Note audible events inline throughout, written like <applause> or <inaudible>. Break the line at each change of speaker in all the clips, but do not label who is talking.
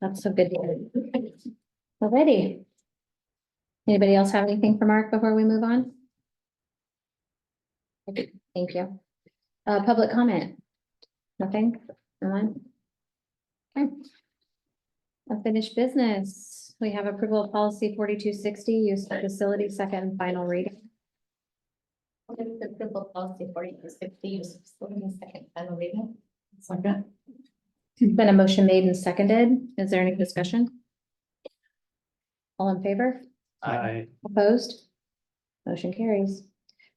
That's so good. to hear. Alrighty. Anybody else have anything for Mark before we move on? Okay, Thank you. Uh, public comment? Nothing? No one? Okay. Unfinished business. We have approval of policy forty-two sixty, use of facility, second and final reading.
Move the approval of policy forty-two sixty, use of facility, second final reading. Second.
Been a motion made and seconded. Is there any discussion? All in favor?
I,
Opposed? Motion carries.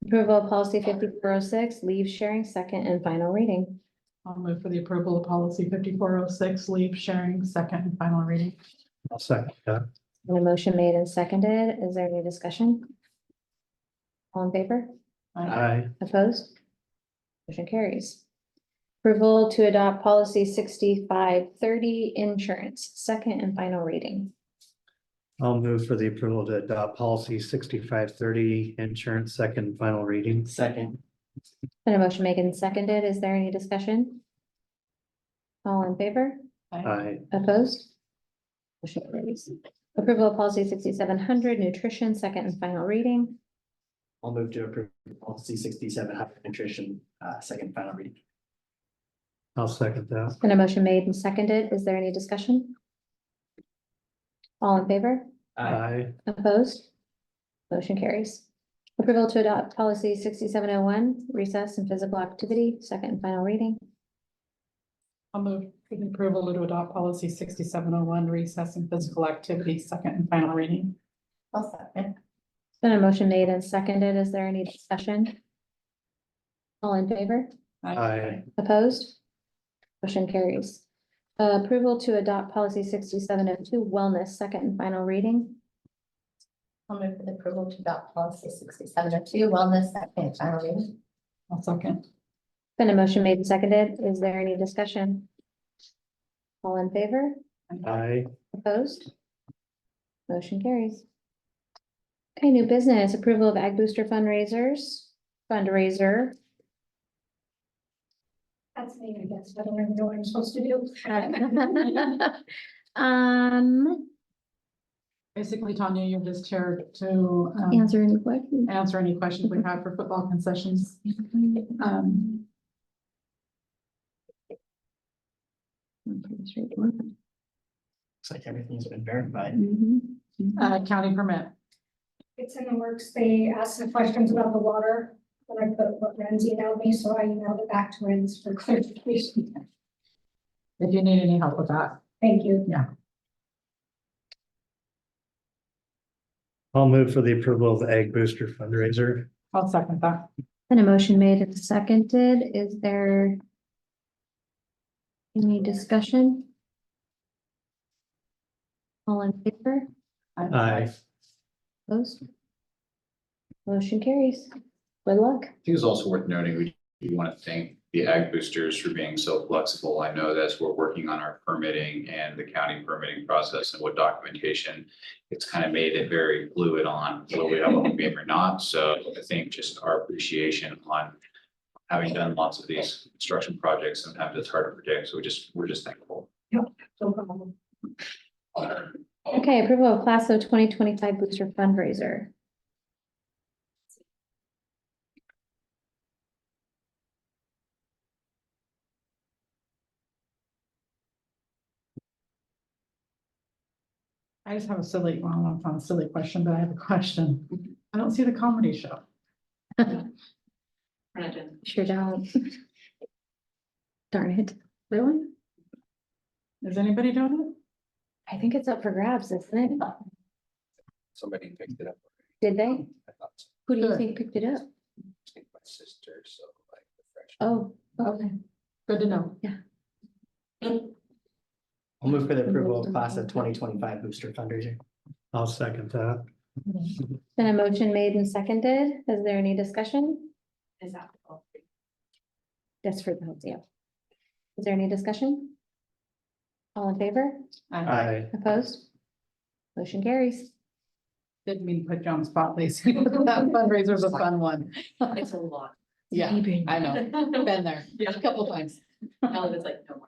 Approval of policy fifty-four oh six, leave sharing, second and final reading.
I'll move for the approval of policy fifty-four oh six, leave sharing, second and final reading.
I'll second that.
And a motion made and seconded. Is there any discussion? All in favor?
I,
Opposed? Motion carries. Approval to adopt policy sixty-five thirty, insurance, second and final reading.
I'll move for the approval to adopt policy sixty-five thirty, insurance, second final reading.
Second,
And a motion made and seconded. Is there any discussion? All in favor?
I,
Opposed? Motion carries. Approval of policy sixty-seven hundred, nutrition, second and final reading.
I'll move to approve policy sixty-seven hundred nutrition, uh, second final reading.
I'll second that.
Been a motion made and seconded. Is there any discussion? All in favor?
I,
Opposed? Motion carries. Approval to adopt policy sixty-seven oh one, recess and physical activity, second and final reading.
I'll move for the approval to adopt policy sixty-seven oh one, recess and physical activity, second and final reading.
I'll second.
Been a motion made and seconded. Is there any discussion? All in favor?
I,
Opposed? Motion carries. Uh, Approval to adopt policy sixty-seven oh two wellness, second and final reading.
I'll move for the approval to adopt policy sixty-seven oh two, wellness, second and final reading.
I'll second.
Been a motion made and seconded. Is there any discussion? All in favor?
I,
Opposed? Motion carries. Okay, new business, approval of Ag Booster fundraisers, fundraiser.
That's me, I guess, I don't even know what I'm supposed to do.
<laughs> Um,
Basically, Tanya, you're just here to um,
answer any <laughs> questions.
answer any questions we have for football concessions. Um,
Looks like everything's been verified.
Mm-hmm.
uh, county permit.
It's in the works. They asked some questions about the water, when I put what Renz emailed me, so I emailed it back to Renz for <laughs> clarification.
If you need any help with that,
Thank you.
I'll move for the approval of the egg booster fundraiser.
I'll second that.
And a motion made and seconded, is there any discussion? All in favor,
I,
opposed? Motion carries. Good luck.
I think it's also worth noting, we do want to thank the ag boosters for being so flexible. I know as we're working on our permitting and the county permitting process and what documentation, it's kind of made it very fluid on whether we have a home game or not. So I think just our appreciation on having done lots of these construction projects, sometimes it's hard to predict. So we just, we're just thankful.
No problem.
Okay, approval of class of twenty twenty-five booster fundraiser.
I just have a silly, well, I don't know if it's a silly question, but I have a question. I don't see the comedy show.
Sure don't. <laughs> Darn it.
Really? Is anybody doing it?
I think it's up for grabs, isn't it?
Somebody picked it up.
Did they?
I thought it
Who do you
Sure.
think picked it up?
was my sister, so like the freshman.
Oh,
Okay, good to know.
I'll move for the approval of class of twenty twenty-five booster fundraiser.
I'll second that.
been a motion made and seconded. Is there any discussion?
Is that all?
That's for the whole deal. Is there any discussion? All in favor?
I
I,
Opposed? Motion carries.
didn't mean to put you on the spot, Lacey. <laughs> That fundraiser's a fun one.
It's a lot.
Yeah, I know. Been there a couple times.
Now it's like no more.